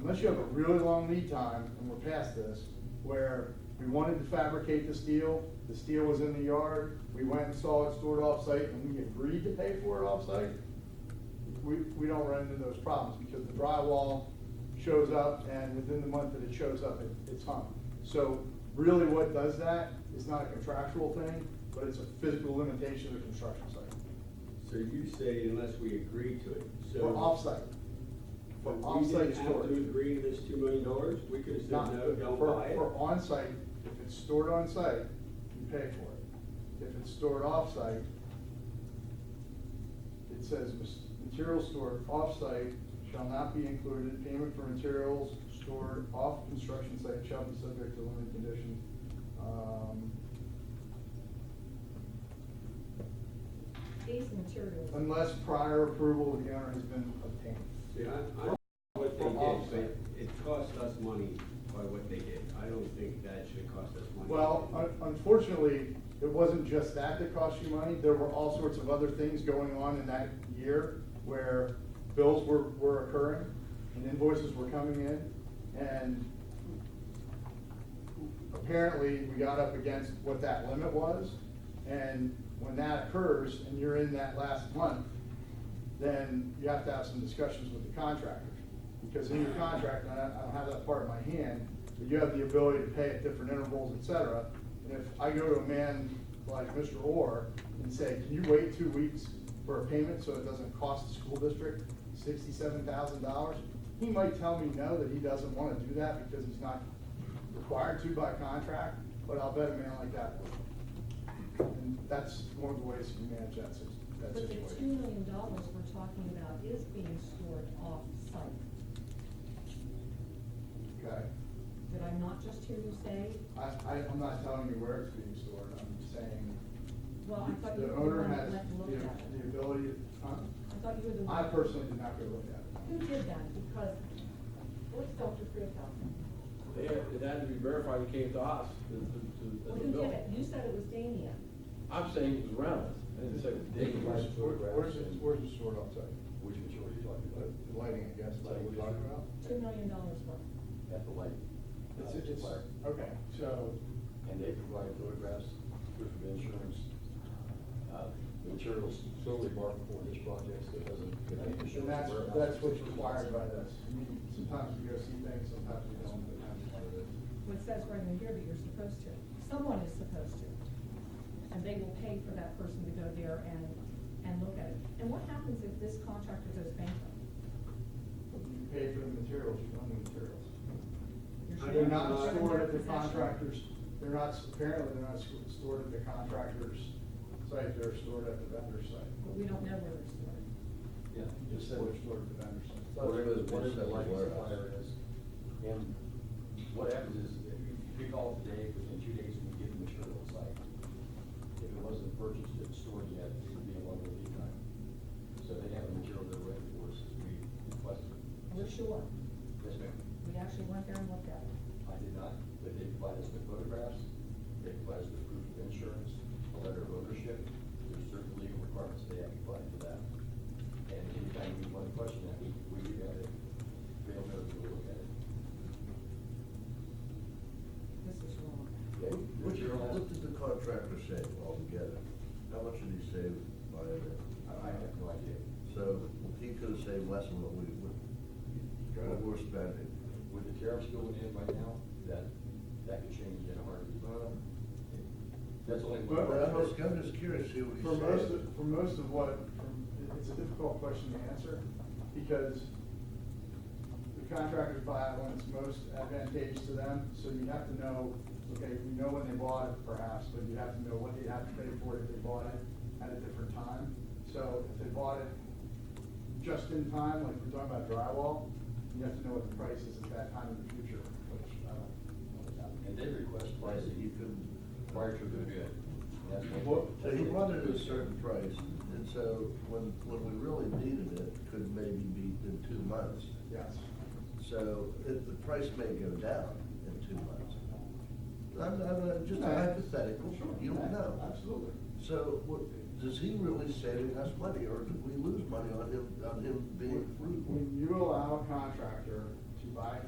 unless you have a really long lead time, and we're past this, where we wanted to fabricate the steel, the steel was in the yard, we went and saw it stored off-site, and we agreed to pay for it off-site, we, we don't run into those problems, because the drywall shows up, and within the month that it shows up, it, it's hung. So really what does that is not a contractual thing, but it's a physical limitation of the construction site, So you say unless we agree to it, so. for off-site, for But we off-site didn't have storage. to agree to this two million dollars, we could have said, Not, no, don't for- buy it. For on-site, if it's stored on-site, you pay for it. If it's stored off-site, it says "Mas- materials stored off-site shall not be included. Payment for materials stored off construction site shall be subject to limited conditions. Um, These materials. Unless prior approval of the owner has been obtained. See, I, I don't know what they For did, off-site. but it cost us money by what they did, I don't think that should cost us money. Well, un- unfortunately, it wasn't just that that cost you money, there were all sorts of other things going on in that year where bills were, were occurring and invoices were coming in, and apparently, we got up against what that limit was, and when that occurs, and you're in that last month, then you have to have some discussions with the contractor. Because in your contract, and I I don't have that part in my hand, but you have the ability to pay at different intervals, et cetera. And if I go to a man like Mr. Orr and say, can you wait two weeks for a payment so it doesn't cost the school district sixty-seven thousand dollars? He might tell me no, that he doesn't wanna do that because he's not required to by contract, but I'll bet a man like that would. And that's one of the ways you manage that situation. But the two million dollars we're talking about is being stored off-site. Okay, Did I not just hear you say, I, I, I'm not telling you where it's being stored, I'm saying. well, I thought The you owner were the one that has the went and looked at the it. ability, huh? I thought you were the I one. personally did not go look at Who it. did that? Because, what's Dr. Freehouse? They had, it had to be verified, it came to us, to, to, to. Well, as a who bill. did it? You said it was Dania. I'm saying it was Reynolds, I didn't say it was Where's, Dave. where's, it- where's it stored outside? Which material are you talking about? The lighting, I guess, is that what we're talking about? Two million dollars worth. At the light. It's, uh, it's, supplier. okay, so, And they provide photographs, proof of insurance, uh, materials solely marked for this project that doesn't contain insurance. and that's, warehouse. that's what's required by this. I mean, Sometimes you go see things, sometimes you don't, but that's what it is. Well, It says right in here that you're supposed to. Someone is supposed to. And they will pay for that person to go there and, and look at it. And what happens if this contractor goes bankrupt? You pay for the materials, you own the materials. You're I do They're sure not you're in stored their at the possession? contractors, they're not, apparently they're not stored at the contractor's site, they're stored at the vendor's site. But we don't know where they're stored. Yeah. You just said they're stored at the vendor's site. Whatever, whatever the lighting supplier is. And what happens is, if you pick off the day, within two days, we get the material on site. If it wasn't purchased and stored yet, it would be a longer lead time. So they have the material they're ready for us as we requested. We're sure. Yes, ma'am. We actually went there and looked at it. I did not, but they provide us with photographs, they provide us with proof of insurance, a letter of ownership, there's certain legal requirements they have to apply for that. And anytime we want to question that, we, we do have it, they'll know to look at it. This is wrong. Okay? What what did the contractor save altogether? How much did he save by it? I, I have no idea. So he could have saved less than what we, what what we're spending. With the tariffs going in right now, that, that could change in a heartbeat. Uh, That's only. But- But I'm just, I'm just curious, to see what he For saved. most of, for most of what, for- it's a difficult question to answer, because the contractors buy it when it's most advantageous to them, so you have to know, okay, you know when they bought it perhaps, but you have to know what they have to pay for it if they bought it at a different time. So if they bought it just in time, like we're talking about drywall, you have to know what the price is at that time in the future, which uh, I don't know about. And they request prices Prices you couldn't- prior to the bid. That's what- Well, so he wanted a certain price, and so when, when we really needed it, could maybe be in two months. Yes. So it, the price may go down in two months. I'm, I'm, uh, just a hypothetical, you don't know. Absolutely. So, what, is he really saving us money, or did we lose money on him, on him being When frugal? when you allow a contractor to buy